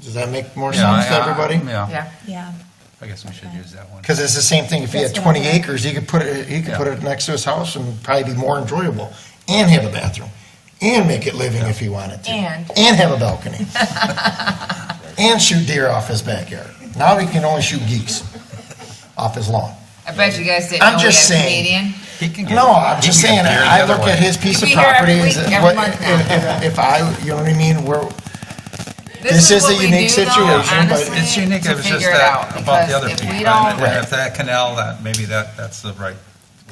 Does that make more Yeah, sense to I- I- everybody? Yeah, Yeah, Yeah, I guess we should use that one. Because it's the same thing, if you had That's what I 20 meant. acres, you could put it, you could Yeah. put it next to his house and probably be more enjoyable, and have a bathroom, and make it living if he wanted to. And- And have a balcony. And shoot deer off his backyard. Now he can only shoot geese off his lawn. I bet you guys didn't I'm know we just had a saying. comedian. He can get- No, I'm he just can saying, get there I the look other at way. his piece of You'll be here every property, week, is every what, month now. if, if I, you know what I mean, we're, This is what a we unique do, though, situation, but- honestly, It's unique, to it was just figure it out, that, about because the other if people. we And don't- if that canal, that, maybe that, that's the right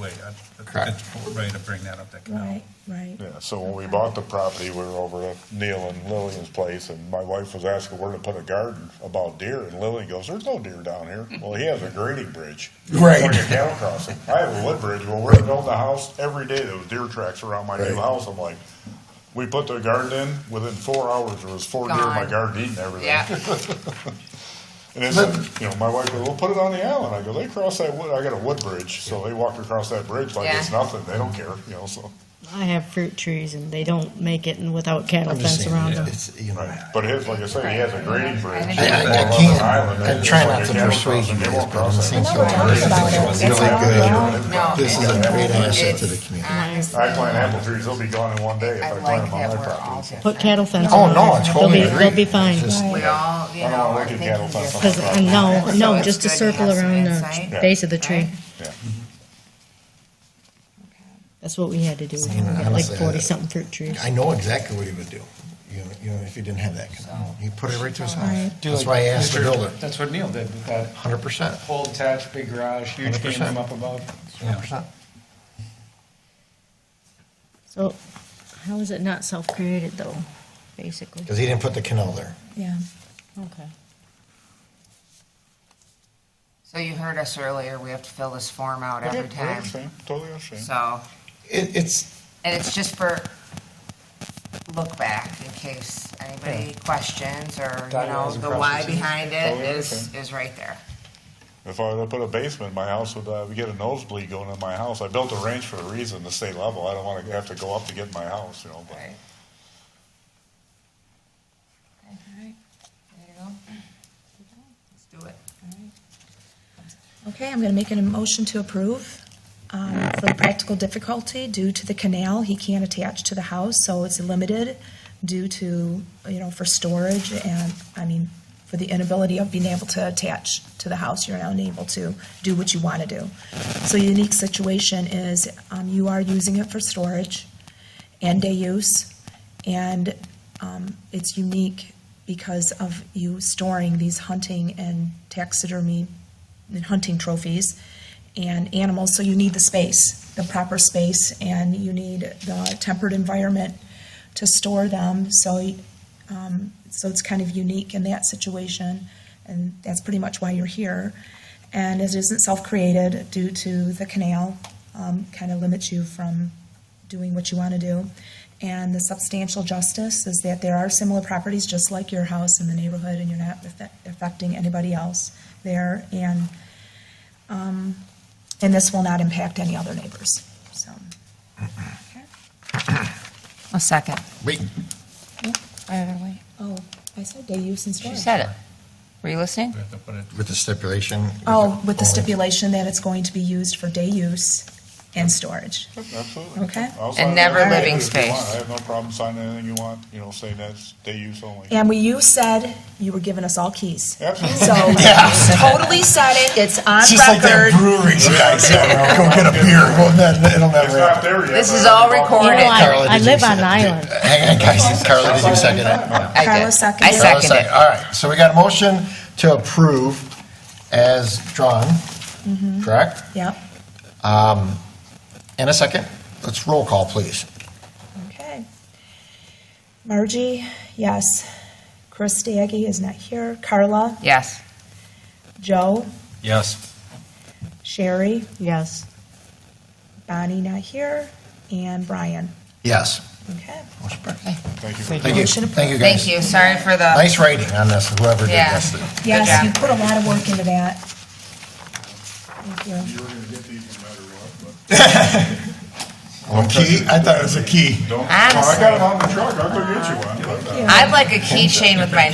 way. I- Correct. It's a way to bring that up, that canal. right, right. Yeah, so when we bought the property, we were over at Neil and Lillian's place, and my wife was asking where to put a garden about deer, and Lillian goes, there's no deer down here. Well, he has a grading bridge. Right. Like a cattle crossing. I have a wood bridge, well, we're building a house, every day there was deer tracks around my new Right. house, I'm like, we put the garden in, within four hours, there was four deer in my Gone. garden eating everything. Yeah. And it's, you know, my wife goes, well, put it on the island. I go, they cross that wood, I got a wood bridge, so they walk across that bridge like it's Yeah. nothing, they don't care, you know, so. I have fruit trees and they don't make it and without cattle I'm just fence around saying, them. it's, you know. But his, like I said, he has a grading bridge. I- I- I Well, on can't. the island, I it's try like not a to cattle persuade crossing. you They guys, won't but I'm cross saying that. so. No, This is a it's- great asset to the it's- community. honestly, I plant apple trees, they'll be gone in one day if I I like plant that them on my we're all property. Put different. cattle fence Oh, around no, them. I totally They'll be- agree. They'll be fine. It's just- We all, you I don't know, wanna are look at thinking cattle fence on different. my Cause, uh, no, So no, it's just a good to circle have some around the insight. base of the tree. Right? That's what we had to do. We See, got like honestly, I- forty something fruit trees. I know exactly what he would do, you know, you know, if he didn't have that canal. He put it right to his house. Do That's like why I asked to Mr. build it, That's what Neil did with that hundred percent, whole attached big garage, huge game 100%. room up above. hundred percent. So how is it not self-created though, basically? Because he didn't put the canal there. Yeah. Okay. So you heard us earlier, we have to fill this form out Yeah, every I time, understand, Totally understand. so, It, it's, and it's just for look back in case anybody questions or, you know, Diagrams and the why processes. behind Oh, it yeah, is, is right there. If I were to put a basement in my house, would I get a nosebleed going in my house? I built a range for a reason, to stay level. I don't wanna have to go up to get in my house, you know, but. Right. Okay, all right. There you go. Let's do it. Okay, I'm going to make a motion to approve. Um, For the practical difficulty, due to the canal, he can't attach to the house, so it's limited due to, you know, for storage and, I mean, for the inability of being able to attach to the house, you're unable to do what you want to do. So unique situation is um, you are using it for storage and day use, and um, it's unique because of you storing these hunting and taxidermy and hunting trophies and animals, so you need the space, the proper space, and you need the tempered environment to store them, so, um, so it's kind of unique in that situation, and that's pretty much why you're here. And it isn't self-created due to the canal, um, kind of limits you from doing what you want to do. And the substantial justice is that there are similar properties, just like your house in the neighborhood, and you're not affect- affecting anybody else there. And, um, and this will not impact any other neighbors, so. Mm-hmm. okay. A second. wait, Oh, I said day use and She storage. said it. Were you listening? We have to put it- with the stipulation. Oh, with only- the stipulation that it's going to be used for day use and storage. Absolutely. Okay. I'll sign never living anything if you want. space. I have no problem signing anything you want, you know, saying that's day use only. And we, you said you were giving us all keys. Absolutely. So you totally said it, it's on Oh, It's just like that record. brewery guy said, "Oh, go get a beer, well, that, it'll It's never not happen. there yet. This but is I all haven't bought it. You know, recorded. I, Carla, I did you live say- on an island. Hang on, guys, Carla, did you second it? I Carla did. seconded I it. Carla seconded sec- it. All right, so we got a motion to approve as drawn, Mm-hmm. correct? Yep, And a second, let's roll call, please. okay. Margie, yes. Chris Daggy is not here. Carla, Yes. Joe, Yes. Sherry, Yes. Bonnie not here, and Brian. Yes. Okay. Motion passed. Thank you. Thank you, Motion approved. thank you, guys. Thank you. Sorry for the, Nice writing on this, whoever did Yeah. this. Yes, job. you put a lot of work into that. Thank you. You were gonna get these no matter what, Oh, key? I thought it was a key. but don't. Honestly. Well, I got it on the truck, I'll go get you one. but, uh, I'd like a keychain with my